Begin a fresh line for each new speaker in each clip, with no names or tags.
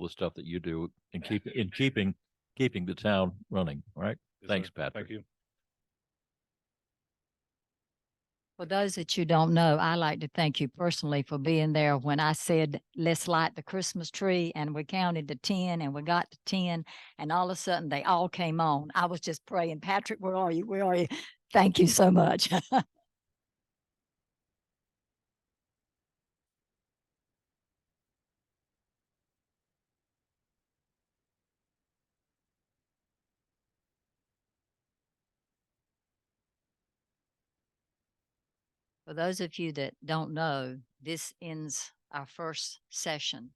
the stuff that you do in keep, in keeping, keeping the town running, all right?
Yes,
Thanks,
sir. Thank
Patrick.
you.
For those that you don't know, I like to thank you personally for being there when I said, let's light the Christmas tree and we counted to ten and we got to ten. And all of a sudden they all came on. I was just praying, Patrick, where are you? Where are you? Thank you so much. For those of you that don't know, this ends our first session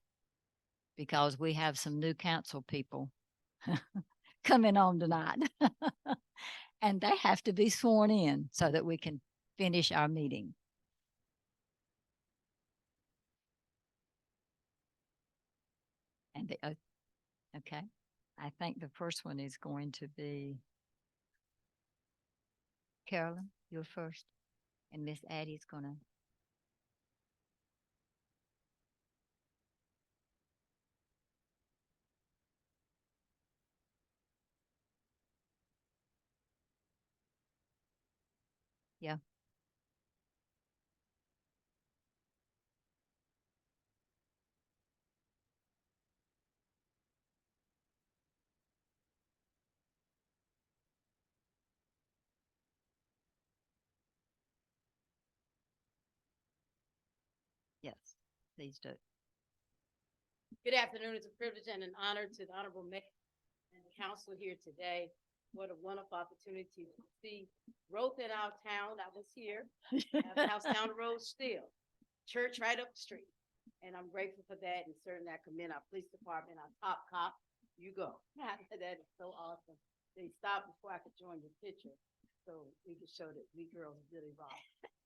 because we have some new council people coming on tonight. And they have to be sworn in so that we can finish our meeting. And the, oath- okay, I think the first one is going to be Carolyn, you're first. And Miss Addie's gonna. Yeah. Yes, please do.
Good afternoon. It's a privilege and an honor to the Honorable Mayor and the council here today. What a wonderful opportunity to see growth in our town. I was here, I have house down the road still, church right up the street. And I'm grateful for that and certainly I commend our police department, our top cop, you go. That is so awesome. They stopped before I could join the picture, so we could show that we girls really rock.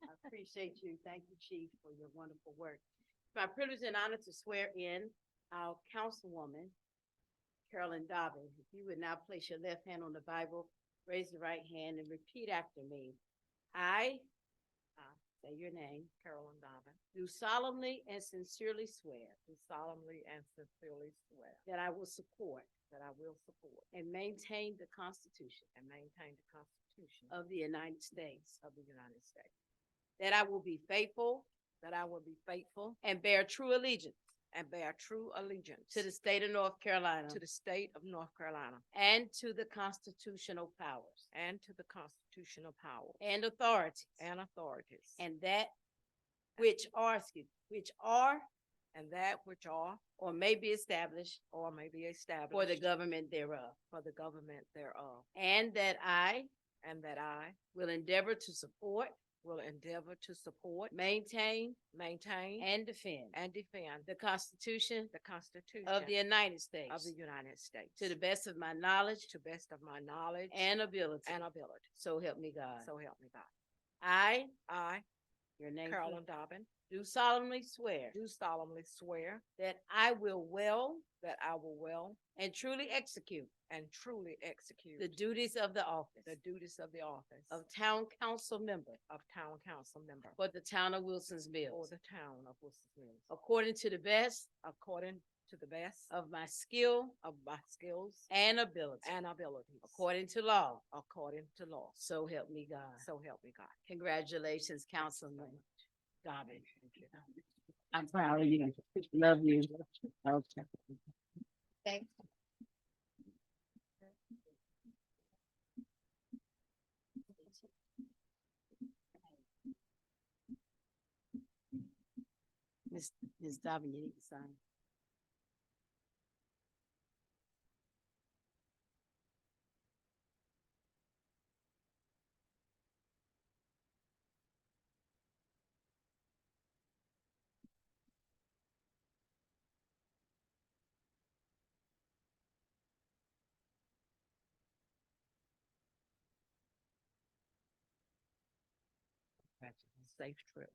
I appreciate you. Thank you, chief, for your wonderful work. It's my privilege and honor to swear in our councilwoman, Carolyn Dobbin. If you would now place your left hand on the Bible, raise the right hand and repeat after me. I, I, say your name,
Carolyn Donovan,
do solemnly and sincerely swear
do solemnly and sincerely swear
that I will support
that I will support
and maintain the Constitution
and maintain the Constitution
of the United States,
of the United States,
that I will be faithful
that I will be faithful
and bear true allegiance
and bear true allegiance
to the state of North Carolina
to the state of North Carolina
and to the constitutional powers
and to the constitutional power
and authorities
and authorities
and that which are, excuse, which are
and that which are
or may be established
or may be established
for the government thereof.
for the government thereof,
And that I
and that I
will endeavor to support,
will endeavor to support,
maintain,
maintain,
and defend
and defend
the Constitution
the Constitution
of the United
of
States
the United States
to the best of my knowledge
to best of my knowledge
and ability.
and ability.
So help me God.
So help me God.
I,
I,
your name,
Carolyn Dobbin,
do solemnly swear
do solemnly swear
that I will well
that I will well
and truly execute
and truly execute
the duties of the office
the duties of the office
of town council member
of town council member
for the town of Wilson's
for
Mills,
the town of Wilson Mills,
according to the best
according to the best
of my skill
of my skills
and ability,
and abilities,
according to law.
according to law.
So help me God.
So help me God.
Congratulations, Councilman Dobbin.
I'm proud of you. Love you. Okay.
Thanks. Ms. Ms. Dobbin, you need to sign.
Safe trip.